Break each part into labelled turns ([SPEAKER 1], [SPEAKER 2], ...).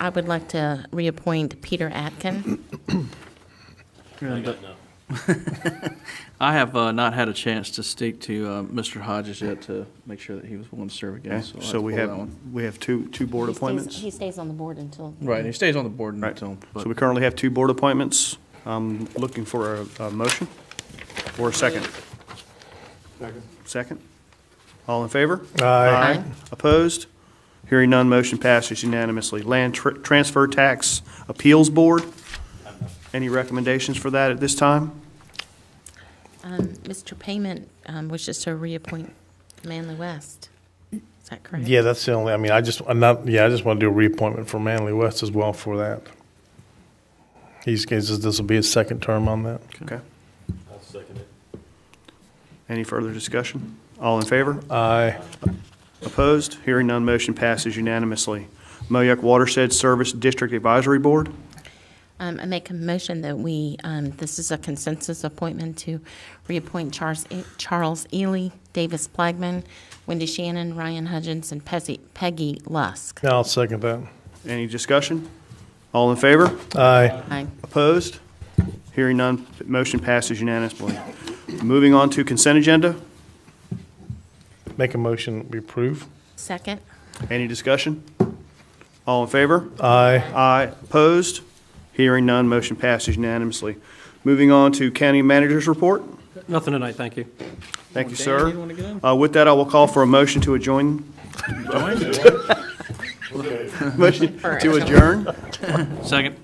[SPEAKER 1] I would like to reappoint Peter Atkin.
[SPEAKER 2] I have uh, not had a chance to speak to uh, Mr. Hodges yet to make sure that he was willing to serve again.
[SPEAKER 3] Okay,
[SPEAKER 2] so I'll
[SPEAKER 3] so we
[SPEAKER 2] pull that
[SPEAKER 3] have,
[SPEAKER 2] one.
[SPEAKER 3] we have two, two board
[SPEAKER 1] He stays-
[SPEAKER 3] appointments?
[SPEAKER 1] He stays on the board until.
[SPEAKER 2] Right, and he stays on the board
[SPEAKER 3] Right,
[SPEAKER 2] until,
[SPEAKER 3] so
[SPEAKER 2] but
[SPEAKER 3] we currently have two board appointments. I'm looking for a, a motion or a second. Second? All in favor?
[SPEAKER 1] Aye.
[SPEAKER 3] Opposed? Hearing none, motion passes unanimously. Land Tr- Transfer Tax Appeals Board, any recommendations for that at this time?
[SPEAKER 1] Um, Mr. Payment um, wishes to reappoint Manley West. Is that correct?
[SPEAKER 4] Yeah, that's the only, I mean, I just, I'm not, yeah, I just want to do a reappointment for Manley West as well for that. He's, he says this will be his second term on that.
[SPEAKER 3] Okay. I'll second it. Any further discussion? All in favor?
[SPEAKER 4] Aye.
[SPEAKER 3] Opposed? Hearing none, motion passes unanimously. Moayak Watershed Service District Advisory Board,
[SPEAKER 1] Um, I make a motion that we, um, this is a consensus appointment to reappoint Charles, E, Charles Ely, Davis Plagman, Wendy Shannon, Ryan Hudgens, and Pezzy- Peggy Lusk.
[SPEAKER 4] I'll second that.
[SPEAKER 3] any discussion? All in favor?
[SPEAKER 4] Aye.
[SPEAKER 1] Aye.
[SPEAKER 3] Opposed? Hearing none, motion passes unanimously. Moving on to consent agenda,
[SPEAKER 4] Make a motion, we approve.
[SPEAKER 1] Second?
[SPEAKER 3] any discussion? All in favor?
[SPEAKER 4] Aye.
[SPEAKER 3] Aye. Opposed? Hearing none, motion passes unanimously. Moving on to county manager's report.
[SPEAKER 5] Nothing tonight, thank you.
[SPEAKER 3] Thank you,
[SPEAKER 2] Dan,
[SPEAKER 3] sir.
[SPEAKER 2] you wanna get in?
[SPEAKER 3] Uh, With that, I will call for a motion to adjourn. Motion to adjourn?
[SPEAKER 2] second.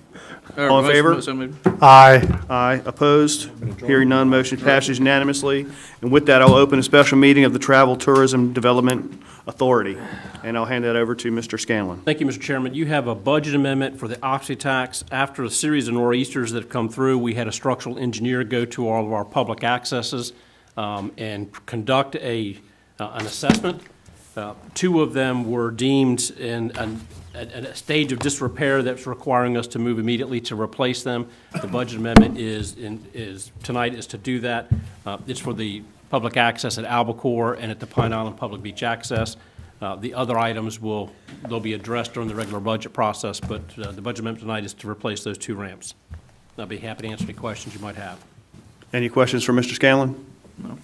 [SPEAKER 3] All in favor?
[SPEAKER 4] Aye.
[SPEAKER 3] Aye, opposed? Hearing none, motion passes unanimously. And with that, I'll open a special meeting of the Travel Tourism Development Authority, and I'll hand that over to Mr. Scanlon.
[SPEAKER 5] Thank you, Mr. Chairman. You have a budget amendment for the oxy tax. After a series of nor'easters that have come through, we had a structural engineer go to all of our public accesses um, and conduct a, uh, an assessment. Uh, Two of them were deemed in an- at at a stage of disrepair that's requiring us to move immediately to replace them. The budget amendment is, in- is, tonight is to do that. Uh, It's for the public access at Albacore and at the Pine Island Public Beach Access. Uh, The other items will, they'll be addressed during the regular budget process, but uh, the budget amendment tonight is to replace those two ramps. And I'll be happy to answer any questions you might have.
[SPEAKER 3] Any questions for Mr. Scanlon? No.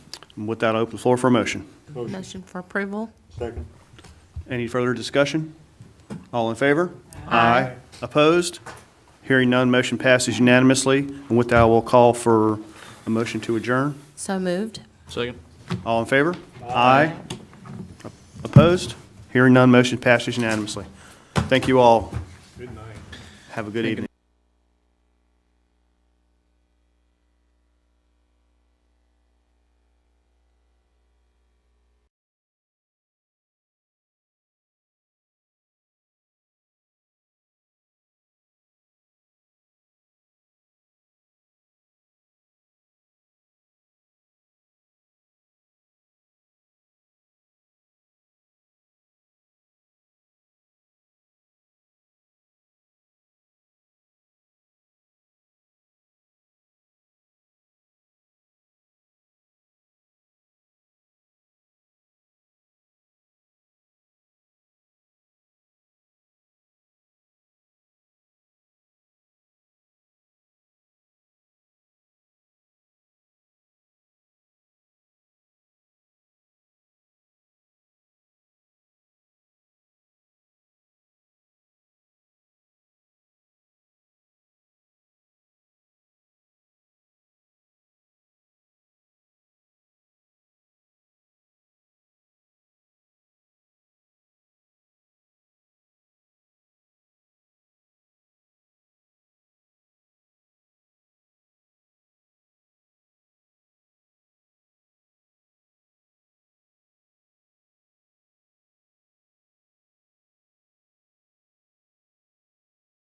[SPEAKER 3] With that, I'll open the floor for a motion.
[SPEAKER 1] Motion for approval?
[SPEAKER 3] Any further discussion? All in favor? Aye. Opposed? Hearing none, motion passes unanimously. And with that, I will call for a motion to adjourn.
[SPEAKER 1] So moved?
[SPEAKER 2] Second.
[SPEAKER 3] All in favor? Aye. Opposed? Hearing none, motion passes unanimously. Thank you all. Good night. Have a good evening.